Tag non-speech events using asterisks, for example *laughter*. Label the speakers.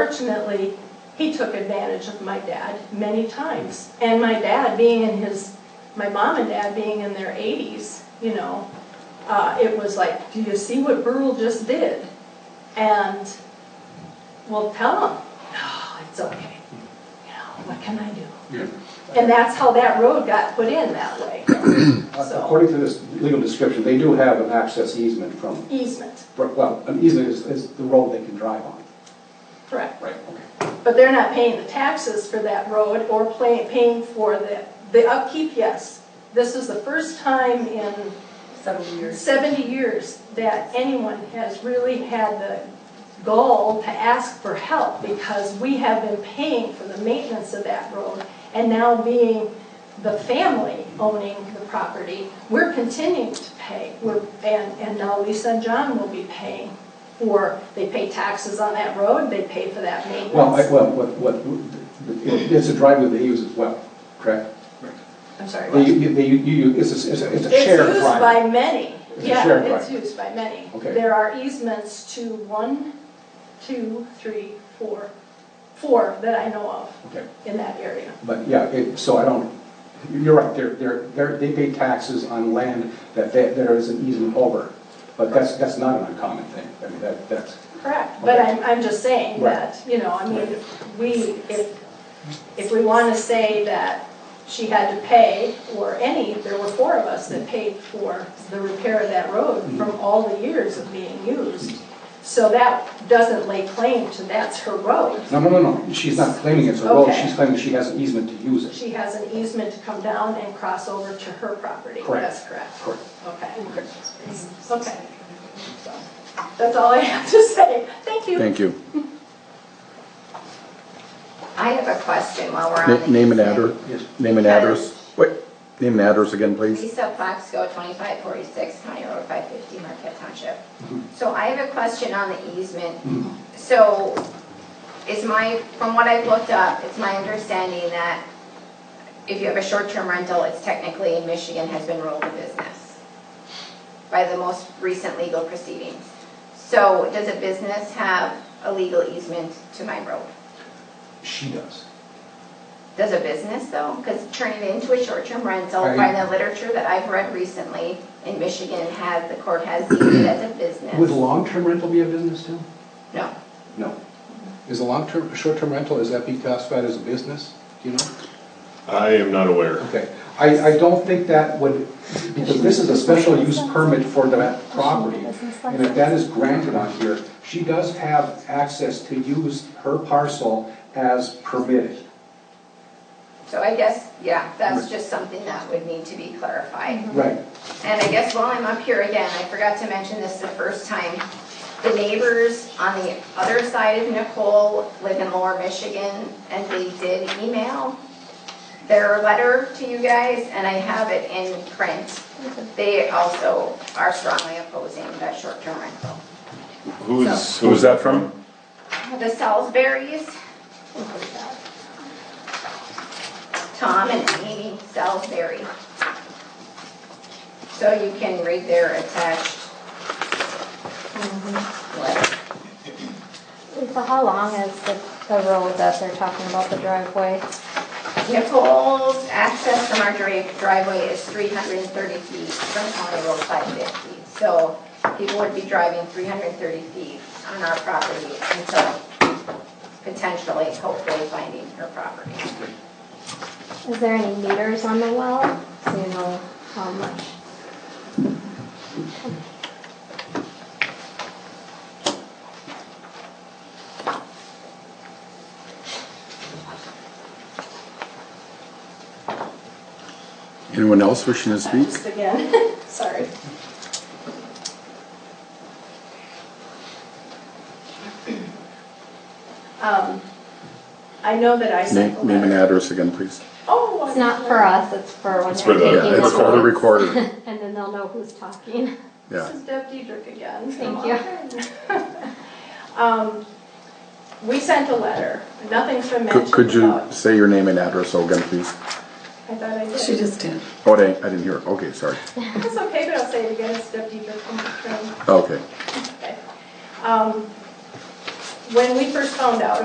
Speaker 1: Unfortunately, he took advantage of my dad many times. And my dad being in his, my mom and dad being in their 80s, you know, uh, it was like, do you see what Burl just did? And we'll tell him, no, it's okay. You know, what can I do?
Speaker 2: Yeah.
Speaker 1: And that's how that road got put in that way,
Speaker 3: According to this legal description, they do have an access easement from,
Speaker 1: easement,
Speaker 3: well, an easement is, is the road they can drive on.
Speaker 1: correct.
Speaker 3: Right. Okay.
Speaker 1: But they're not paying the taxes for that road or pay- paying for the, the upkeep, yes. This is the first time in
Speaker 4: several years.
Speaker 1: 70 years that anyone has really had the gall to ask for help because we have been paying for the maintenance of that road. And now being the family owning the property, we're continuing to pay. We're- And, and now Lisa and John will be paying for, they pay taxes on that road, they pay for that maintenance.
Speaker 3: Well, I, well, what, what, it's a driveway they use as well, correct?
Speaker 1: I'm sorry.
Speaker 3: They,
Speaker 1: what?
Speaker 3: you, they, you, it's a, it's a, it's a
Speaker 1: It's
Speaker 3: shared
Speaker 1: used
Speaker 3: driveway.
Speaker 1: by many.
Speaker 3: It's a shared
Speaker 1: Yeah, it's
Speaker 3: drive.
Speaker 1: used by many.
Speaker 3: Okay.
Speaker 1: There are easements to one, two, three, four, four that I know of
Speaker 3: Okay,
Speaker 1: in that area.
Speaker 3: but yeah, it, so I don't, you're right, they're, they're, they're, they pay taxes on land that they, there is an easement over. But that's, that's not an uncommon thing, I mean, that, that's,
Speaker 1: Correct, but I'm, I'm just saying
Speaker 3: Right.
Speaker 1: that, you know, I mean, we, if, if we want to say that she had to pay, or any, there were four of us that paid for the repair of that road
Speaker 3: Mm-hmm.
Speaker 1: from all the years of being used. So that doesn't lay claim to that's her road.
Speaker 3: no, no, no, no, she's not claiming it's a road,
Speaker 1: Okay.
Speaker 3: she's claiming she has an easement to use it.
Speaker 1: She has an easement to come down and cross over to her property.
Speaker 3: Correct.
Speaker 1: That's correct.
Speaker 3: Correct.
Speaker 1: Okay. Okay. So, That's all I have to say. Thank you.
Speaker 5: Thank you.
Speaker 4: I have a question while we're on
Speaker 5: Na-
Speaker 4: the.
Speaker 5: Name and
Speaker 4: easement.
Speaker 5: address, name and address, wait, name and address again, please.
Speaker 4: Lisa Plaxco, 2546 County Road 550, Marquette Township.
Speaker 5: Mm-hmm.
Speaker 4: So I have a question on the easement. So is my, from what I've looked up, it's my understanding that if you have a short-term rental, it's technically in Michigan has been ruled a business by the most recent legal proceedings. So does a business have a legal easement to my road?
Speaker 3: She does.
Speaker 4: Does a business though? Because turning it into a short-term rental, by the literature that I've read recently, in Michigan has, the court has deemed it as a
Speaker 3: Would
Speaker 4: business.
Speaker 3: long-term rental be a business too?
Speaker 4: No,
Speaker 3: No. Is a long-term, short-term rental, is that be classified as a business? Do you know?
Speaker 6: I am not aware.
Speaker 3: Okay. I, I don't think that would, because this is a special use permit for that property. And if that is granted on here, she does have access to use her parcel as permitted.
Speaker 4: so I guess, yeah, that's just something that would need to be clarified.
Speaker 3: Right.
Speaker 4: And I guess while I'm up here again, I forgot to mention this the first time. The neighbors on the other side of Nicole live in Lower Michigan, and they did email their letter to you guys, and I have it in print. They also are strongly opposing that short-term rental.
Speaker 6: Who's,
Speaker 5: Who's
Speaker 6: who's
Speaker 5: that from?
Speaker 4: The Salisbury's, Tom and Amy Salisbury. So you can read their attached letter.
Speaker 7: So how long is the, the road that they're talking about, the driveway?
Speaker 4: Nicole's access from our dri- driveway is 330 feet from County Road 550. So people would be driving 330 feet on our property until potentially, hopefully, finding her property.
Speaker 7: Is there any meters on the well? Do you know how much?
Speaker 5: Anyone else wishing to speak?
Speaker 1: Just again, *laughs* sorry. Um, I know that I sent
Speaker 5: Name
Speaker 1: the
Speaker 5: name and
Speaker 1: letter.
Speaker 5: address again, please.
Speaker 1: Oh,
Speaker 7: It's not for us, it's for when
Speaker 6: It's for
Speaker 7: they're
Speaker 6: the-
Speaker 7: taking
Speaker 6: it's
Speaker 5: It's for the
Speaker 7: notes.
Speaker 5: recorder,
Speaker 7: *laughs* And then they'll know who's talking.
Speaker 5: yeah.
Speaker 1: This is Deb Diedrich again.
Speaker 7: Thank
Speaker 1: you. *laughs* Um, We sent a letter, nothing's been
Speaker 5: Could-
Speaker 1: mentioned
Speaker 5: Could you
Speaker 1: about.
Speaker 5: say your name and address again, please?
Speaker 1: I thought I did.
Speaker 8: She just did.
Speaker 5: Oh, I didn't I didn't hear, okay, sorry.
Speaker 1: It's okay, but I'll say it again, it's Deb Diedrich from the train.
Speaker 5: Okay,
Speaker 1: Okay. Um, when we first found out